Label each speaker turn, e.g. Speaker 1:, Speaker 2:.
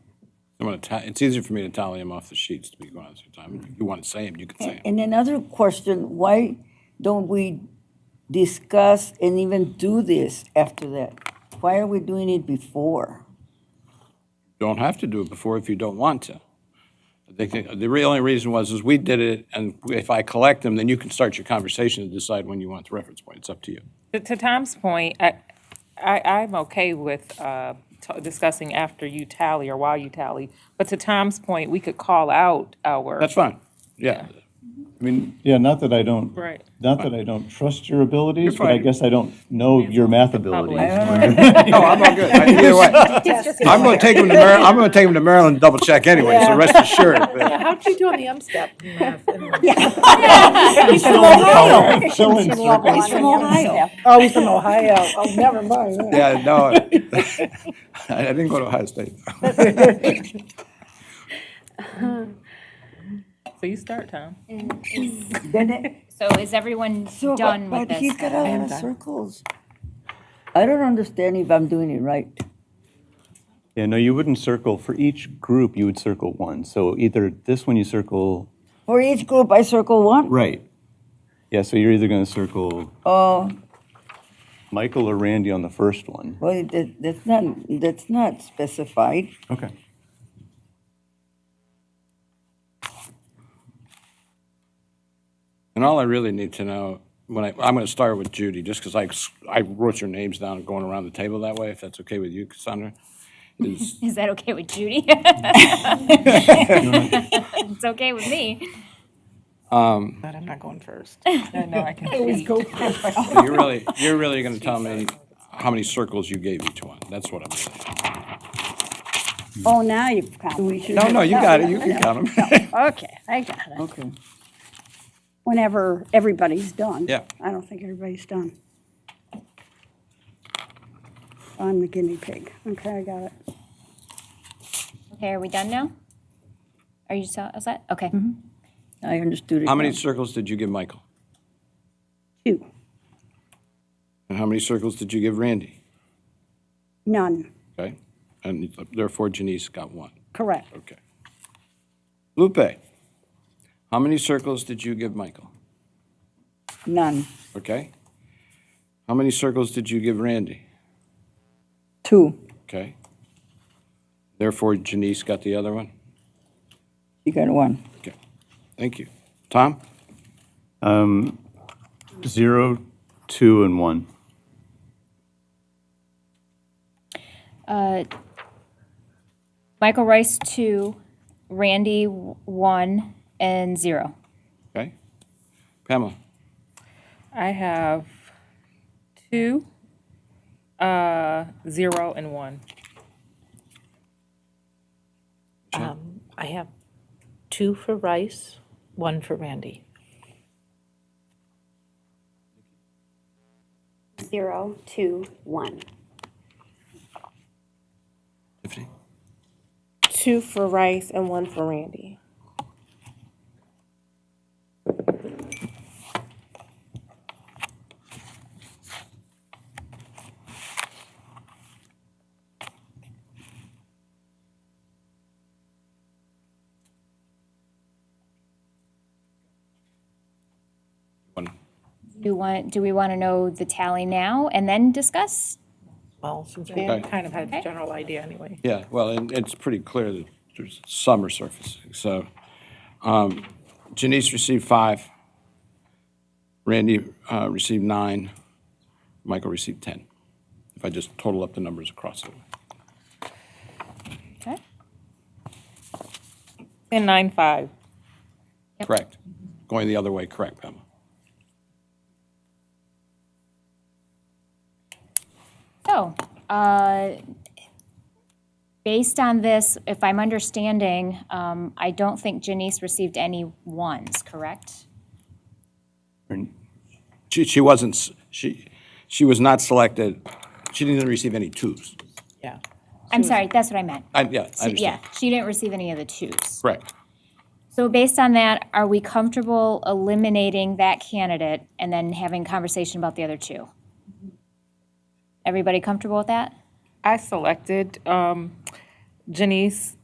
Speaker 1: I'm gonna, ta- it's easier for me to tally them off the sheets, to be honest with you, Tom. If you want to say them, you can say them.
Speaker 2: And another question, why don't we discuss and even do this after that? Why are we doing it before?
Speaker 1: Don't have to do it before if you don't want to. I think the- the real only reason was is we did it, and if I collect them, then you can start your conversation and decide when you want the reference point. It's up to you.
Speaker 3: To- To Tom's point, I, I, I'm okay with uh, t- discussing after you tally or while you tally. But to Tom's point, we could call out our.
Speaker 1: That's fine. Yeah. I mean,
Speaker 4: Yeah, not that I don't,
Speaker 3: Right.
Speaker 4: not that I don't trust your abilities, but I
Speaker 1: fine.
Speaker 4: guess I don't know your math abilities.
Speaker 1: no, I'm all good. I- Either way. I'm gonna take them to Maryland, I'm gonna take them to Maryland and double check anyway, so rest assured. but-
Speaker 5: How'd you do on the M step?
Speaker 4: Fill oh, in circles.
Speaker 2: He's from Ohio.
Speaker 5: Oh, he's from Ohio. Oh, never mind.
Speaker 1: Yeah, no. I- I didn't go to Ohio State.
Speaker 3: So you start, Tom.
Speaker 2: Then it-
Speaker 6: So is everyone
Speaker 2: so,
Speaker 6: done
Speaker 2: but
Speaker 6: with this?
Speaker 2: he's got a
Speaker 6: then?
Speaker 2: lot of circles. I don't understand if I'm doing it right.
Speaker 4: Yeah, no, you wouldn't circle, for each group, you would circle one. So either this one you circle
Speaker 2: For each group, I circle one.
Speaker 4: Right. Yeah, so you're either going to circle
Speaker 2: Oh,
Speaker 4: Michael or Randy on the first one.
Speaker 2: well, that, that's not, that's not specified.
Speaker 4: Okay.
Speaker 1: And all I really need to know, when I, I'm going to start with Judy, just because I, s- I wrote your names down going around the table that way, if that's okay with you, Cassandra, is,
Speaker 6: Is that okay with Judy? It's okay with me.
Speaker 5: But I'm not going first.
Speaker 3: I know I can. cheat.
Speaker 1: you're really, you're really going to tell me how many circles you gave each one. That's what I'm.
Speaker 7: Oh, now you've come.
Speaker 2: We should.
Speaker 1: No, no, you got it. You can count them.
Speaker 7: Okay, I got it.
Speaker 2: Okay.
Speaker 7: Whenever everybody's done.
Speaker 1: Yeah.
Speaker 7: I don't think everybody's done. I'm the guinea pig. Okay, I got it.
Speaker 6: Okay, are we done now? Are you so, is that, okay.
Speaker 2: I understood it.
Speaker 1: How many
Speaker 2: now.
Speaker 1: circles did you give Michael?
Speaker 7: Two,
Speaker 1: And how many circles did you give Randy?
Speaker 7: none,
Speaker 1: Okay? And therefore Janice got one.
Speaker 7: correct.
Speaker 1: Okay. Lupe, how many circles did you give Michael?
Speaker 2: None.
Speaker 1: Okay? How many circles did you give Randy?
Speaker 2: Two.
Speaker 1: Okay. Therefore, Janice got the other one?
Speaker 2: You got one.
Speaker 1: Okay. Thank you. Tom?
Speaker 4: Zero, two, and one.
Speaker 6: Uh, Michael Rice, two, Randy, w- one, and zero.
Speaker 1: Okay. Pamela?
Speaker 3: I have two, uh, zero, and one.
Speaker 5: Um, I have two for Rice, one for Randy.
Speaker 8: Zero, two, one.
Speaker 1: Tiffany?
Speaker 9: two for Rice and one for Randy.
Speaker 1: One.
Speaker 6: Do want, do we want to know the tally now and then discuss?
Speaker 5: Well, since we
Speaker 1: Okay.
Speaker 5: kind of had a general idea anyway.
Speaker 1: Yeah, well, and it's pretty clear that there's some are surfacing, so. um, Janice received five. Randy uh, received nine. Michael received 10. If I just total up the numbers across it.
Speaker 6: Okay.
Speaker 3: And nine, five.
Speaker 1: Correct. Going the other way, correct, Pamela.
Speaker 6: So, uh, based on this, if I'm understanding, um, I don't think Janice received any ones, correct?
Speaker 1: She, she wasn't, s- she, she was not selected, she didn't receive any twos.
Speaker 5: Yeah.
Speaker 6: I'm sorry, that's what I meant.
Speaker 1: I, yeah, I
Speaker 6: Yeah,
Speaker 1: understand.
Speaker 6: she didn't receive any of the twos.
Speaker 1: Correct.
Speaker 6: So based on that, are we comfortable eliminating that candidate and then having conversation about the other two? Everybody comfortable with that?
Speaker 3: I selected, um, Janice